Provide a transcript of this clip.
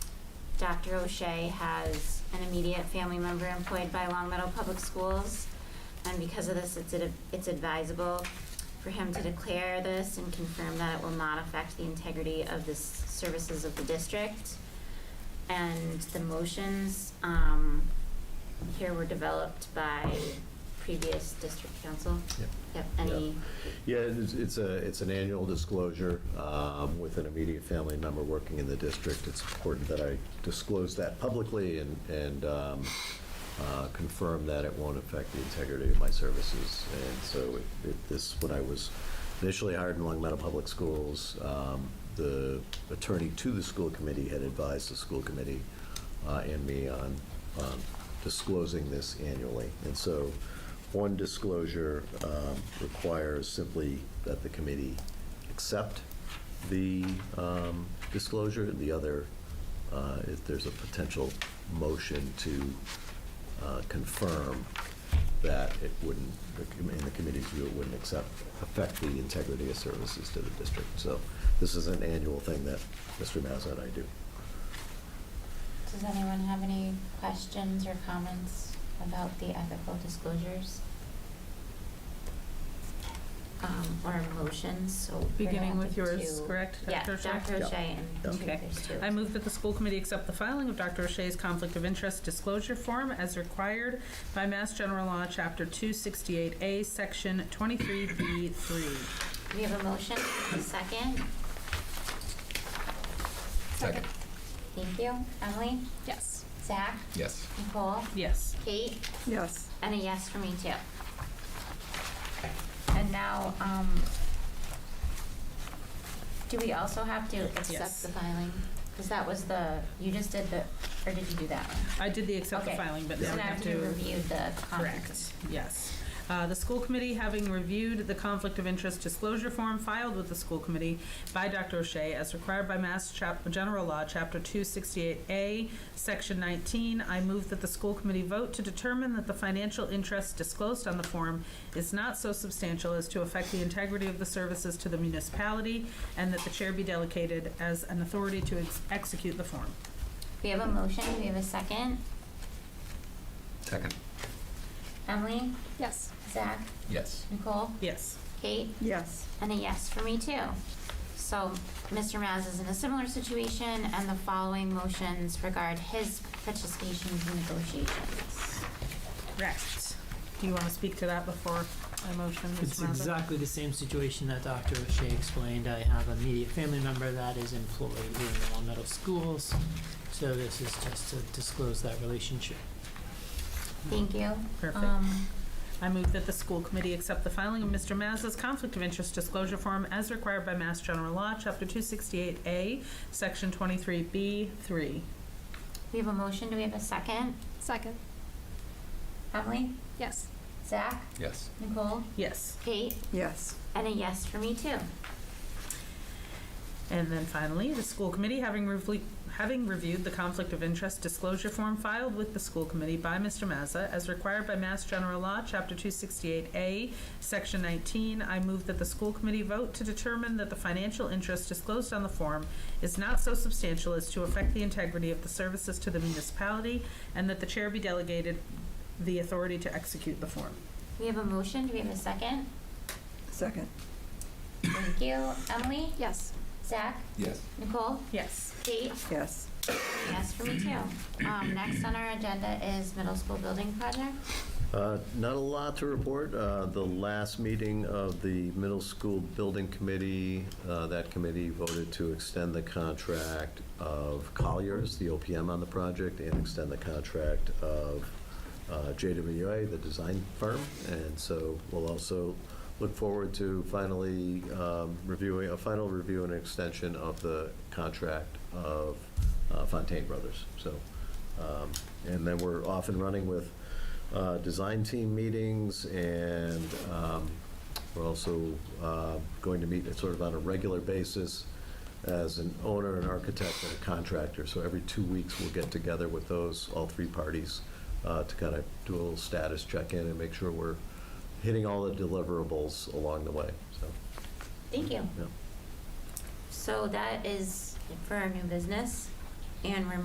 Dr. O'Shea has an immediate family member employed by Long Meadow Public Schools. And because of this, it's ad- it's advisable for him to declare this and confirm that it will not affect the integrity of the s- services of the district. And the motions um, here were developed by previous district council. Yep. Yep, any, Yeah, it's it's a, it's an annual disclosure um, with an immediate family member working in the district. It's important that I disclose that publicly and, and um, uh, confirm that it won't affect the integrity of my services. And so it- it- this, when I was initially hired in Long Meadow Public Schools, um, the attorney to the school committee had advised the school committee uh, and me on um, disclosing this annually. And so one disclosure um, requires simply that the committee accept the um, disclosure, and the other, uh, if there's a potential motion to uh, confirm that it wouldn't, the com- in the committee's view, it wouldn't accept, affect the integrity of services to the district. So this is an annual thing that Mr. Mazza and I do. does anyone have any questions or comments about the ethical disclosures? Um, Or motions, so. we're gonna Beginning have with the yours, two- correct, Yeah, Dr. O'Shea? Dr. Yeah. O'Shea and two, Okay. there's two. I move that the school committee accept the filing of Dr. O'Shea's conflict of interest disclosure form as required by Mass General Law, Chapter 268A, Section 23B3. We have a motion, a second. Second. Thank you. Emily? Yes. Zach? Yes. Nicole? Yes. Kate? Yes. And a yes for me too. And now, um, do we also have to accept Yes. the filing? Because that was the, you just did the, or did you do that one? I did the accept the Okay. filing, but So now we now have you to... reviewed the Correct, comments. yes. Uh, The school committee, having reviewed the conflict of interest disclosure form filed with the school committee by Dr. O'Shea as required by Mass Chap- General Law, Chapter 268A, Section 19, I move that the school committee vote to determine that the financial interest disclosed on the form is not so substantial as to affect the integrity of the services to the municipality, and that the chair be delegated as an authority to ex- execute the form. We have a motion, we have a second. Second. Emily, Yes. Zach, Yes. Nicole, Yes. Kate? Yes. And a yes for me too. So Mr. Maz is in a similar situation and the following motions regard his participation in negotiations. Correct. Do you want to speak to that before I motion, It's Mr. Mazza? exactly the same situation that Dr. O'Shea explained. I have a immediate family member that is employed here in the Long Meadow Schools, so this is just to disclose that relationship. Thank you. Perfect. Um, I move that the school committee accept the filing of Mr. Mazza's conflict of interest disclosure form as required by Mass General Law, Chapter 268A, Section 23B3. We have a motion, do we have a second? Second. Emily, Yes. Zach, Yes. Nicole, Yes. Kate, Yes. and a yes for me too. And then finally, the school committee, having revle- having reviewed the conflict of interest disclosure form filed with the school committee by Mr. Mazza as required by Mass General Law, Chapter 268A, Section 19, I move that the school committee vote to determine that the financial interest disclosed on the form is not so substantial as to affect the integrity of the services to the municipality, and that the chair be delegated the authority to execute the form. We have a motion, do we have a second? Second. Thank you. Emily, Yes. Zach, Yes. Nicole, Yes. Kate, Yes. and a yes for me too. Um, next on our agenda is middle school building project. Uh, Not a lot to report. Uh, The last meeting of the middle school building committee, uh, that committee voted to extend the contract of Colliers, the OPM on the project, and extend the contract of uh, JWA, the design firm. And so we'll also look forward to finally um, reviewing, a final review and extension of the contract of uh, Fontaine Brothers. So, um, and then we're off and running with uh, design team meetings, and um, we're also uh, going to meet sort of on a regular basis as an owner, an architect, and a contractor. So every two weeks, we'll get together with those, all three parties, uh, to kind of do a little status check-in and make sure we're hitting all the deliverables along the way, so, Thank you. yeah. So that is for our new business, and we're